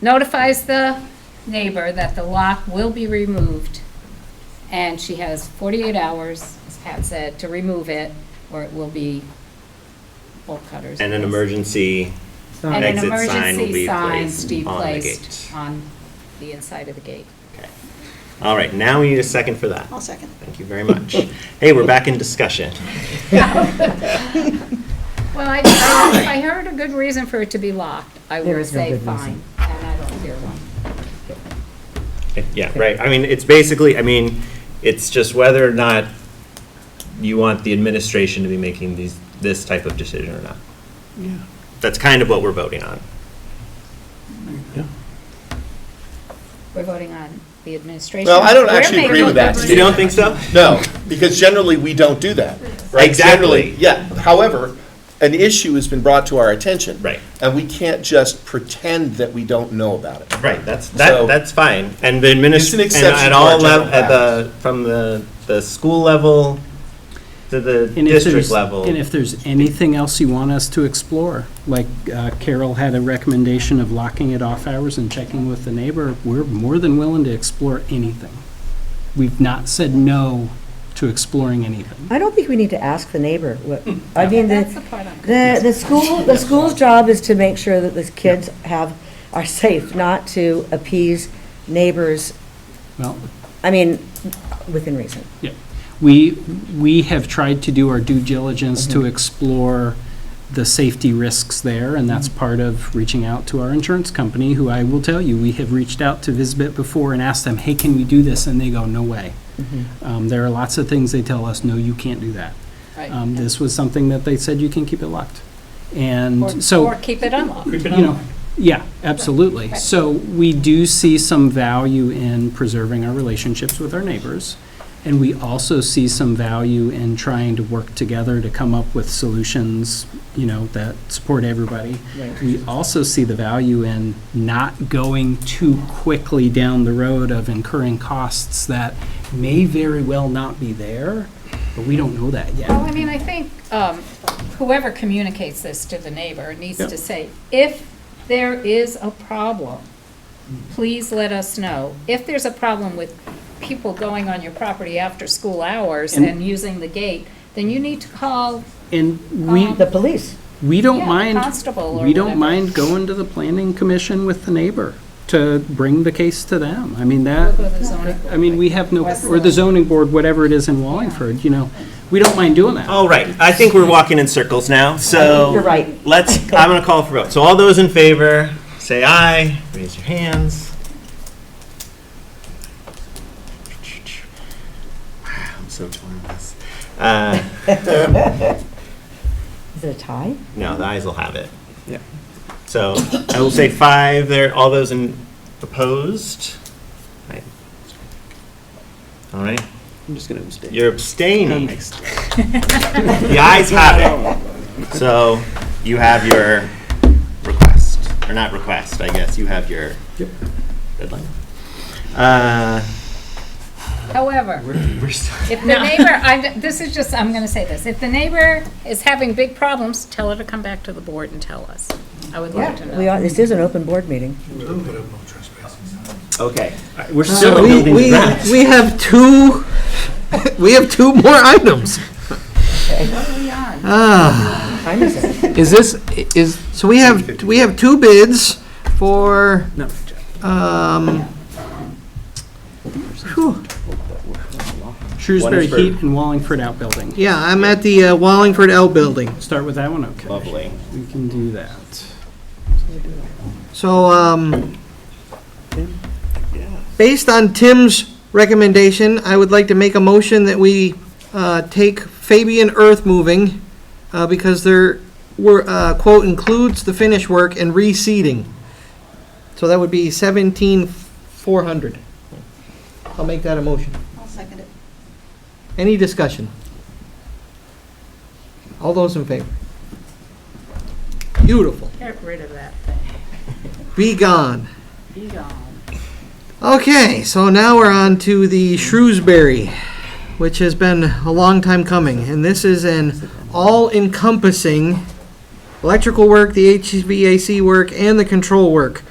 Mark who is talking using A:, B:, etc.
A: notifies the neighbor that the lock will be removed, and she has 48 hours, as Pat said, to remove it, or it will be bolt cutters.
B: And an emergency,
A: And an
B: exit sign will
A: emergency
B: be
A: sign
B: placed
A: be
B: on the
A: placed
B: gate.
A: on the inside of the gate.
B: okay. All right, now we need a second for that.
C: I'll second.
B: Thank you very much. Hey, we're back in discussion.
A: Well, I, I- if I heard a good reason for it to be locked, I
D: There
A: would
D: is no
A: say
D: good
A: fine,
D: reason.
A: and I don't hear one.
B: Yeah, right, I mean, it's basically, I mean, it's just whether or not you want the administration to be making these, this type of decision or not.
E: Yeah.
B: That's kind of what we're voting on.
A: We're voting on the administration.
E: Well, I don't
A: We're
E: actually agree
A: making
E: with
A: a
E: that,
A: good
E: Steve.
B: You don't think so?
E: No, because generally, we don't do that. right?
B: Exactly.
E: Generally, Yeah, however, an issue has been brought to our attention.
B: Right.
E: And we can't just pretend that we don't know about it.
B: Right, that's, that,
E: So-
B: that's fine. And the
E: It's an
B: administration, and
E: exception
B: at
E: to our
B: all, lev-
E: general
B: at the, from the, the school level to the
F: And if
B: district
F: there's-
B: level.
F: And if there's anything else you want us to explore, like uh, Carol had a recommendation of locking it off hours and checking with the neighbor, we're more than willing to explore anything. We've not said no to exploring anything.
D: I don't think we need to ask the neighbor. what- I mean,
A: That's the
D: the,
A: part I'm.
D: the, the school, the school's job is to make sure that the kids have, are safe, not to appease neighbors,
F: Well,
D: I mean, within reason.
F: yeah, we, we have tried to do our due diligence
A: Mm-hmm.
F: to explore the safety risks there,
A: Mm-hmm.
F: and that's part of reaching out to our insurance company, who I will tell you, we have reached out to Visbit before and asked them, hey, can we do this? And they go, no way.
A: Mm-hmm.
F: Um, There are lots of things they tell us, no, you can't do that.
A: Right.
F: Um, This was something that they said you can keep it locked. And
A: Or-
F: so,
A: Or keep it unlocked.
F: you know, yeah, absolutely. So we do see some value in preserving our relationships with our neighbors. And we also see some value in trying to work together to come up with solutions, you know, that support everybody. We also see the value in not going too quickly down the road of incurring costs that may very well not be there, but we don't know that yet.
A: Well, I mean, I think um, whoever communicates this to the neighbor needs
F: Yeah.
A: to say, if there is a problem, please let us know. If there's a problem with people going on your property after school hours
F: And-
A: and using the gate, then you need to call,
F: And we,
D: The police.
F: We
A: Yeah,
F: don't mind,
A: constable or
F: we don't
A: whatever.
F: mind going to the planning commission with the neighbor to bring the case to them. I mean,
A: we'll go to the
F: that,
A: zoning board.
F: I mean, we have no, or the zoning board, whatever it is in Wallingford, you know, we don't mind doing that.
B: All right, I think we're walking in circles now, so.
D: You're right.
B: Let's, I'm gonna call for vote. So all those in favor, say aye, raise your hands. Wow, I'm so torn on this. Uh,
D: Is it a tie?
B: No, the ayes will have it. Yeah. So I will say five there, all those in opposed? Right. All right,
G: I'm just gonna abstain. Oh,
B: you're abstaining. The ayes have it. So you have your request, or not request, I guess, you have your deadline. Uh,
A: However,
B: We're still,
A: if the neighbor, I, this is just, I'm going to say this, if the neighbor is having big problems, tell her to come back to the board and tell us. I would love to know.
D: We are, this is an open board meeting.
B: okay.
F: We're
G: So we, we, we have two, we have two more items.
D: Time is it?
G: Is this, is, so we have, we have two bids for,
F: No.
G: um, whew,
F: Shrewsbury
B: One is for-
F: Heat and Wallingford Outbuilding.
G: yeah, I'm at the uh, Wallingford L Building.
F: Start with that one, okay.
B: Lovely.
F: We can do that.
G: So, um, based on Tim's recommendation, I would like to make a motion that we, uh, take Fabian Earth Moving, uh, because their, were, uh, quote, includes the finish work and reseeding. So that would be seventeen four hundred. I'll make that a motion.
C: I'll second it.
G: Any discussion? All those in favor? Beautiful.
A: Get rid of that thing.
G: Be gone.
A: Be gone.
G: Okay, so now we're on to the Shrewsbury, which has been a long time coming, and this is an all-encompassing electrical work, the HVAC work, and the control work.